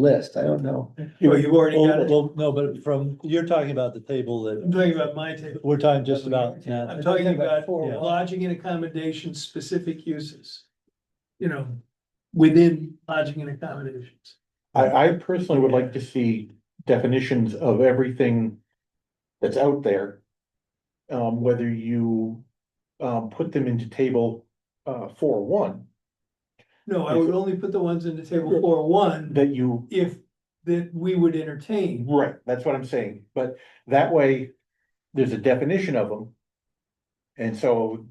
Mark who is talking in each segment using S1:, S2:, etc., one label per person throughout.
S1: list, I don't know.
S2: Well, you've already got
S3: Well,
S2: it.
S3: well, no, but from, you're talking about the table
S2: I'm
S3: that,
S2: talking about my table.
S3: we're talking just about, now.
S2: I'm talking about
S3: yeah.
S2: lodging and accommodation specific uses. You know, within lodging and accommodations.
S4: I, I personally would like to see definitions of everything that's out there. Um, whether you, um, put them into table, uh, four one,
S2: No, I would only put the ones in the table for one
S4: that you,
S2: if that we would entertain.
S4: right, that's what I'm saying, but that way, there's a definition of them. And so,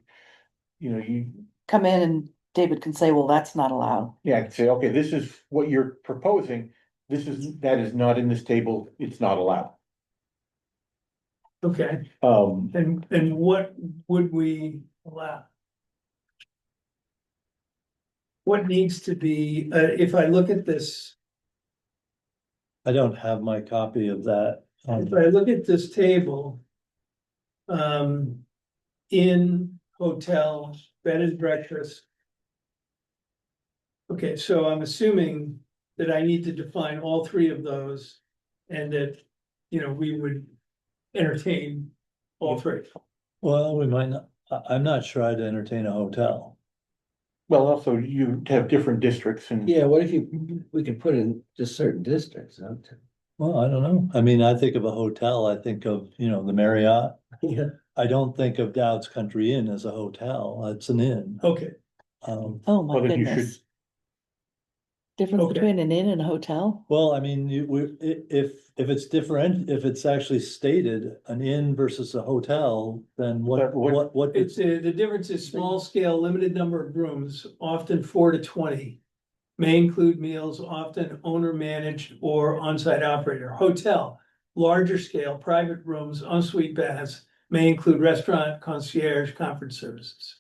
S4: you know, you,
S5: come in and David can say, well, that's not allowed.
S4: yeah, I can say, okay, this is what you're proposing, this is, that is not in this table, it's not allowed.
S2: Okay,
S4: Um,
S2: and and what would we allow? What needs to be, uh, if I look at this,
S3: I don't have my copy of that. um,
S2: if I look at this table. Um, in hotel, bed and breakfast. Okay, so I'm assuming that I need to define all three of those and that, you know, we would entertain all three.
S3: Well, we might not, I, I'm not sure I'd entertain a hotel.
S4: well, also you have different districts and.
S1: Yeah, what if you, we could put in just certain districts, huh?
S3: Well, I don't know. I mean, I think of a hotel, I think of, you know, the Marriott.
S1: Yeah.
S3: I don't think of Dowd's Country Inn as a hotel. It's an inn.
S2: Okay,
S3: Um,
S5: Oh, my
S4: Well, then you
S5: goodness. Difference
S2: Okay.
S5: between an inn and a hotel?
S3: well, I mean, you, we, i- if, if it's different, if it's actually stated an inn versus a hotel, then what,
S4: But what-
S3: what, what?
S2: it's, uh, the difference is small scale, limited number of rooms, often four to twenty. May include meals, often owner managed or on-site operator. Hotel, larger scale, private rooms, ensuite baths, may include restaurant, concierge, conference services.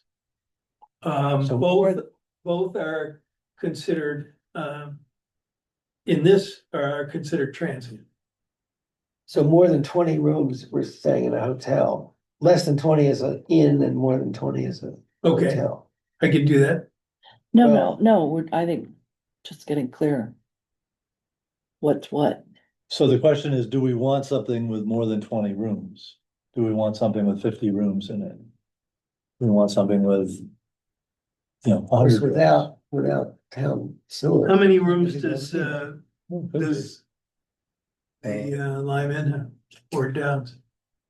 S2: Um,
S3: So-
S2: both, both are considered, um. In this are considered transient.
S1: So more than twenty rooms, we're staying in a hotel. Less than twenty is an inn and more than twenty is a
S2: Okay,
S1: hotel.
S2: I can do that.
S5: No,
S1: Well-
S5: no, no, we're, I think, just getting clear. What's what?
S3: So the question is, do we want something with more than twenty rooms? Do we want something with fifty rooms in it? Do we want something with, you know, a
S1: Of course,
S3: hundred?
S1: without, without town
S2: How
S1: sewer.
S2: many rooms does, uh,
S3: rooms?
S2: Does the uh, Lime Inn have four downs?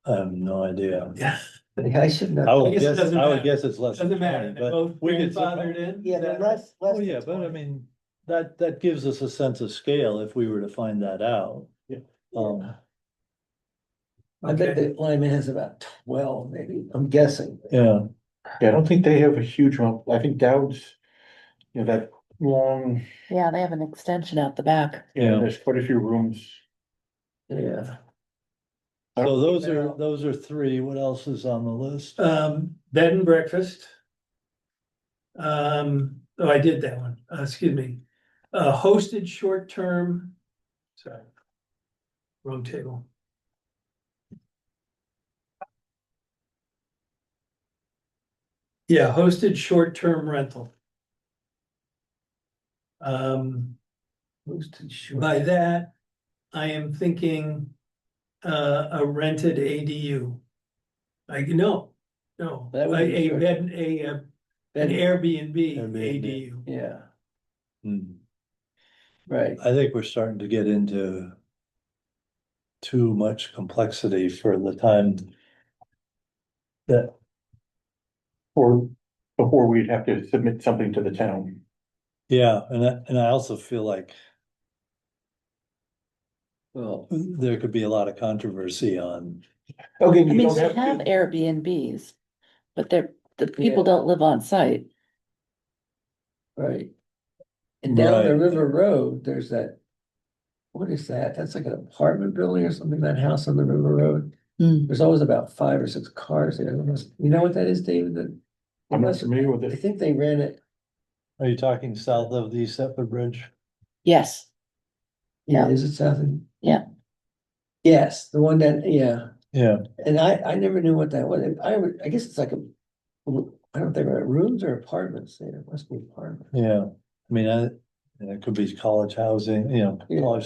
S3: I have no idea.
S2: Yeah.
S1: I should
S3: I
S1: know.
S2: I
S3: would
S2: guess it
S3: guess,
S2: doesn't
S3: I
S2: matter.
S3: would guess it's less than
S2: Doesn't matter,
S3: twenty,
S2: they're
S3: but
S2: both
S3: we could.
S2: grandfathered in.
S1: Yeah,
S2: That-
S1: but less, less.
S3: Oh, yeah,
S1: than
S3: but I
S1: 20.
S3: mean, that, that gives us a sense of scale if we were to find that out.
S4: Yeah.
S3: Um,
S1: I bet that Lyman has about twelve, maybe, I'm guessing.
S3: yeah,
S4: Yeah, I don't think they have a huge one. I think Dowd's, you know, that long,
S5: Yeah, they have an extension out the back.
S3: yeah.
S4: there's quite a few rooms. uh,
S1: Yeah.
S4: I
S3: So
S4: don't-
S3: those are, those are three. What else is on the list?
S2: Um, bed and breakfast. Um, oh, I did that one, uh, excuse me, uh, hosted short-term, sorry. Wrong table. Yeah, hosted short-term rental. Um,
S1: Boosted short.
S2: By that, I am thinking uh, a rented ADU. Like, no, no,
S1: That would
S2: like
S1: be
S2: a
S1: sure.
S2: bed, a, uh, an
S1: Then-
S2: Airbnb
S3: Airbnb.
S2: ADU.
S1: Yeah,
S3: Hmm.
S1: right.
S3: I think we're starting to get into too much complexity for the time that,
S4: Or before we'd have to submit something to the town.
S3: yeah, and I, and I also feel like
S1: Well,
S3: there could be a lot of controversy on,
S4: Okay,
S5: I
S4: you
S5: mean,
S4: don't
S5: we
S4: have
S5: have
S4: to.
S5: Airbnbs, but they're, the
S1: Yeah.
S5: people don't live on site.
S1: right. And down the
S3: Right.
S1: river road, there's that. What is that? That's like an apartment building or something, that house on the river road.
S5: Hmm.
S1: There's always about five or six cars there. I don't know- You know what that is, David? That-
S4: I'm not familiar with
S1: I
S4: it.
S1: think they ran it.
S3: are you talking south of the Setford Bridge?
S5: Yes,
S1: Yeah,
S5: Yeah.
S1: is it Southend?
S5: Yeah.
S1: Yes, the one that, yeah.
S3: Yeah,
S1: And I, I never knew what that was. And I would, I guess it's like a, I don't think, rooms or apartments there, It must be apartment.
S3: yeah. I mean, I, And it could be college housing, you know,
S1: Yeah.
S3: college